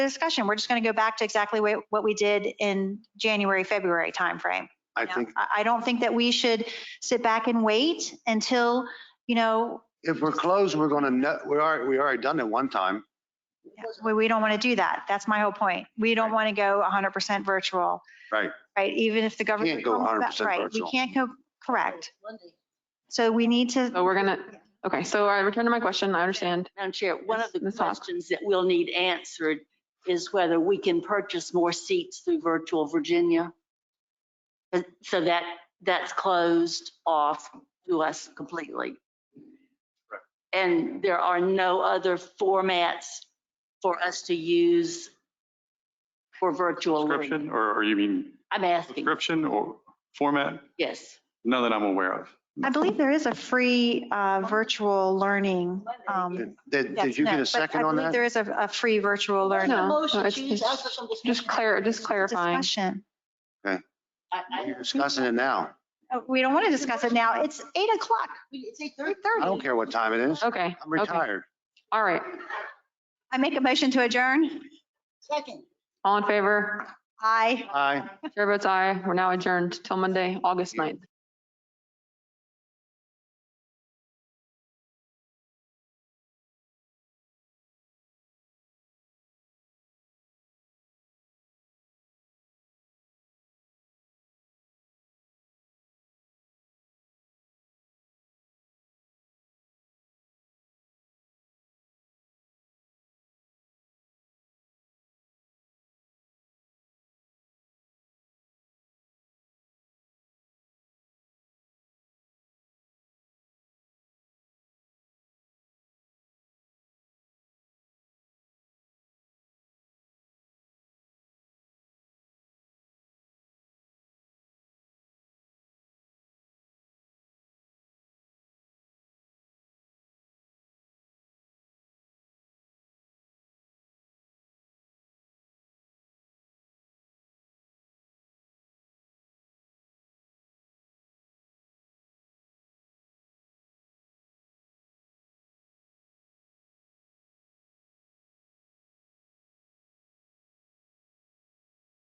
discussion. We're just going to go back to exactly wha- what we did in January, February timeframe. I you know? think I, I don't think that we should sit back and wait until, you know, if we're closed, we're gonna, know- we are, we already done it one time. we, we don't want to do that. That's my whole point. We don't Right. want to go 100% virtual. Right. Right, even if the government. Can't go comes back- 100% right, virtual. We can't go, correct. So we need to, So we're gonna, okay, so I return to my question, I understand. Madam Chair, one of the Ms. Hawk. questions that we'll need answered is whether we can purchase more seats through Virtual Virginia. But- So that, that's closed off to us completely. And there are no other formats for us to use for virtual Subscription, learning. or, or you mean I'm asking, subscription or format? yes. None that I'm aware of. I believe there is a free uh, virtual learning. um, Did, did yes, did you no, get a but second I on believe that? There is a, a free virtual learning No, no, it's- it's Just clar, just clarifying. discussion. You're discussing it now. Oh, We don't want to discuss it now. It's eight o'clock. It's I don't care what time it is. Okay, I'm okay, retired. all right. I make a motion to adjourn. Second. All in favor? Aye. Aye. Chair votes aye. We're now adjourned till Monday, August 9th.